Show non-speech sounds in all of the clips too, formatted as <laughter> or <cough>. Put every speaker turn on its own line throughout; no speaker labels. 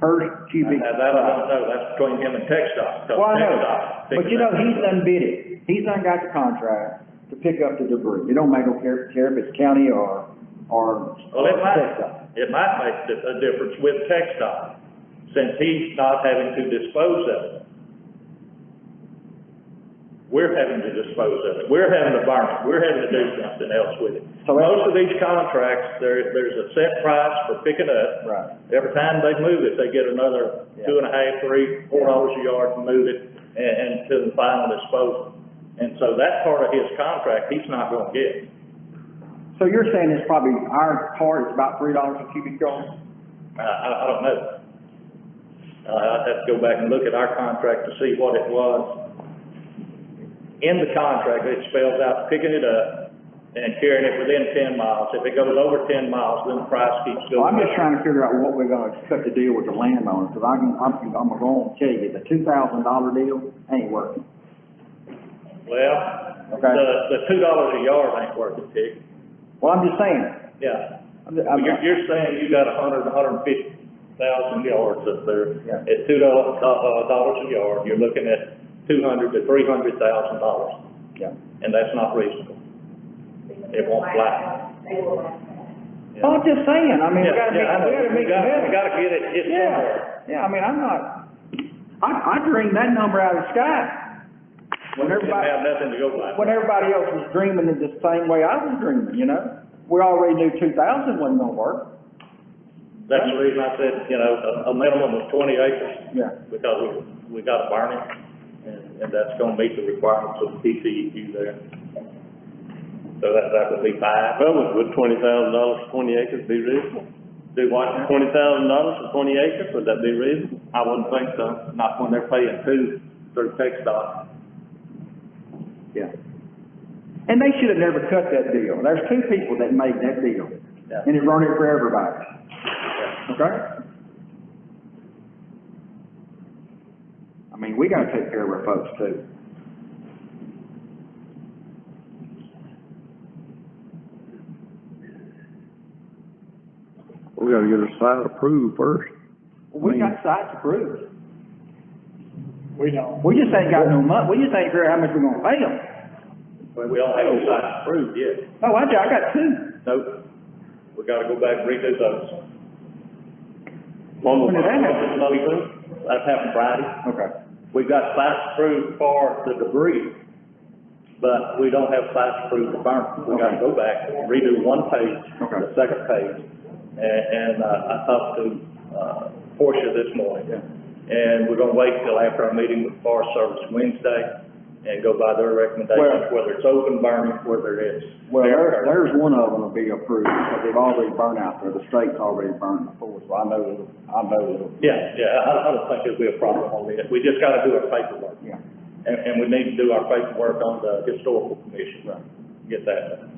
per cubic.
Now, that I don't know, that's between him and Tech Stop, so
Well, I know,
Tech Stop.
but you know, he's done bid it, he's done got the contract to pick up the debris, it don't make no care, care if it's county or, or.
Well, it
Tech Stop.
might, it might make di- a difference with Tech Stop, since he's not having to dispose of it. We're having to dispose of it, we're having to burn it, we're having to do something else with it.
So that's-
Most of these contracts, there, there's a set price for picking up.
Right.
Every time they move it, they get another two and a half, three, four dollars a yard to move it and, and to the final disposal. And so that part of his contract, he's not gonna get.
So you're saying it's probably, our tar is about three dollars a cubic yard?
I, I, I don't know. Uh, I'd have to go back and look at our contract to see what it was. In the contract, it spells out picking it up and carrying it within ten miles. If it goes over ten miles, then the price keeps
Well, I'm
going
just
up.
trying to figure out what we're gonna cut the deal with the landowner, cause I can, I'm, I'm gonna tell you, the two thousand dollar deal ain't working.
Well,
Okay.
the, the two dollars a yard ain't worth it, Dick.
Well, I'm just saying,
Yeah.
I'm, just-
Well,
I'm,
You're, you're saying you got a hundred, a hundred and fifty thousand yards up there.
Yeah.
At two dollars, uh, dollars a yard, you're looking at two hundred to three hundred thousand dollars,
yeah.
and that's not reasonable. It won't fly.
They will last.
Yeah.
Well, I'm just saying, I mean, we
Yeah,
gotta make,
yeah, I know.
we gotta
We
make
gotta-
better.
We gotta get it, it's somewhere.
Yeah, yeah, I mean, I'm not, I, I dreamed that number out of the sky. When
We didn't
everybody,
have nothing to go by.
when everybody else was dreaming in the same way I was dreaming, you know? We already knew two thousand wasn't gonna work.
That's the reason I said, you know, a, a minimum of twenty acres,
Yeah.
because we, we gotta burn it, and, and that's gonna meet the requirements of TCEQ there. So that, that would be five.
Well, would, would twenty thousand dollars for twenty acres be reasonable?
Do what now?
Twenty thousand dollars for twenty acres, would that be reasonable?
I wouldn't think so, not when they're paying two through Tech Dot.
Yeah. And they should have never cut that deal. There's two people that made that deal.
Yeah.
And it ruined it for everybody. Okay? I mean, we gotta take care of our folks too.
We gotta get a site approved first.
We got sites approved. We don't. We just ain't got no mon, we just ain't sure how much we're gonna pay them.
We all have the sites approved, yes.
No, Oh, I, ju- I got two.
Nope. We gotta go back and redo those.
One
When
was,
did that happen?
That's happened Friday.
Okay.
We've got sites approved for the debris, but we don't have sites approved for burn. We gotta go back, redo one page,
Okay.
the second page. And, and, uh, I talked to, uh, Portia this morning. And we're gonna wait till after our meeting with Forest Service Wednesday and go by their recommendations, whether it's open burning, whether it's.
Well, there, there's one of them will be approved, because they've already burned out there, the state's already burned before, so I know it'll, I know it'll,
Yeah, yeah, I, I don't think there'll be a problem on this. We just gotta do our paperwork.
yeah.
And, and we need to do our paperwork on the historical commission, get that done.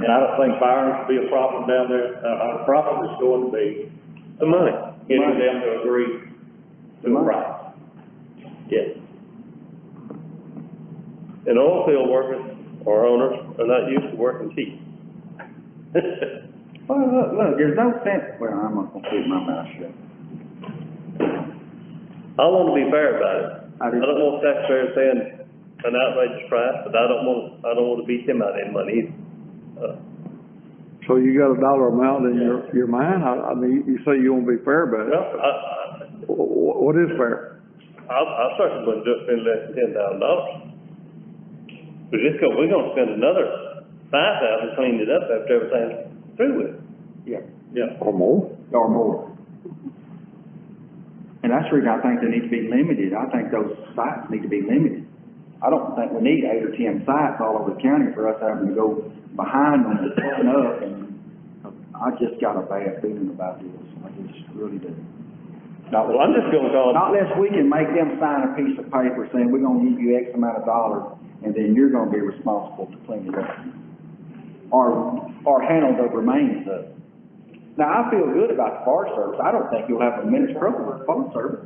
And I don't think firing will be a problem down there, uh, our problem is going to be
the money.
getting them to agree to a price. Yes,
And oil field workers or owners are not used to working <laughs> cheap.
Well, look, look, there's no sense, well, I'm not gonna keep my mouth shut.
I want to be fair about it.
I
I
do.
don't want taxpayers paying an outrageous price, but I don't want, I don't want to beat them out of any money either. Uh,
So you got a dollar amount in your, your mind? I, I mean, you say you wanna be fair about it.
Well, I, I,
Wh- wh- What is fair?
I, I certainly wouldn't do it for any less than ten thousand dollars. But it's gonna, we're gonna spend another five thousand cleaning it up after everything's through with. it.
Yeah.
yeah.
Or more?
Or more. And that's the reason I think they need to be limited, I think those sites need to be limited. I don't think we need eight or ten sites all over the county for us having to go behind them and pulling up, and I just got a bad feeling about this, I just really do. Not
Well, I'm just gonna call,
Not unless we can make them sign a piece of paper saying, we're gonna give you X amount of dollars, and then you're gonna be responsible to clean it up. Or, or handle the remains of it. Now, I feel good about the Forest Service, I don't think you'll have a minute's trouble with the Forest Service.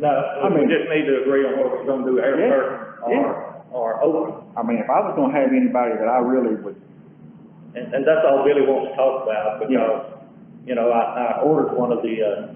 No, we
mean-
just need to agree on what we're gonna do, air
Yeah,
curtain
yeah.
or, or open.
I mean, if I was gonna have anybody that I really would,
And, and that's all Billy wants to talk
Yeah.
about because, you know, I, I ordered one of the, uh,